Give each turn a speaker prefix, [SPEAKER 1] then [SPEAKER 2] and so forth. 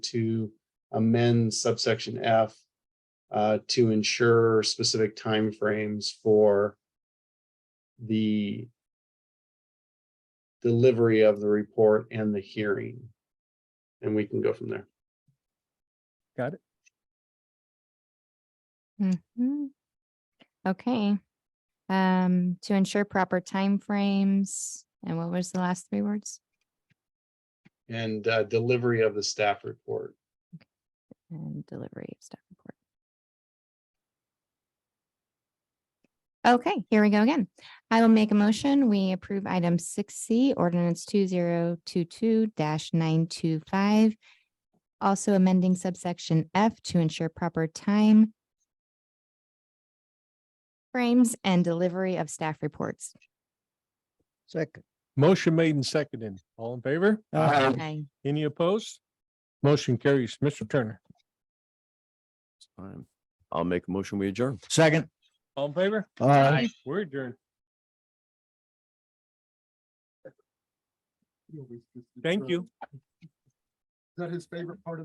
[SPEAKER 1] to amend subsection F uh, to ensure specific timeframes for the delivery of the report and the hearing. And we can go from there.
[SPEAKER 2] Mhm. Okay. Um, to ensure proper timeframes, and what was the last three words?
[SPEAKER 1] And uh, delivery of the staff report.
[SPEAKER 2] And delivery of staff report. Okay, here we go again. I will make a motion. We approve item six C, ordinance two zero two two nine two five. Also amending subsection F to ensure proper time frames and delivery of staff reports.
[SPEAKER 3] Second,
[SPEAKER 4] Motion made and seconded. All in favor?
[SPEAKER 3] Aye.
[SPEAKER 2] Aye.
[SPEAKER 4] Any opposed? Motion carries. Mr. Turner.
[SPEAKER 5] Fine. I'll make a motion, we adjourn.
[SPEAKER 3] second.
[SPEAKER 4] All in favor?
[SPEAKER 3] Aye.
[SPEAKER 4] We're adjourned. Thank you.
[SPEAKER 6] Is that his favorite part of?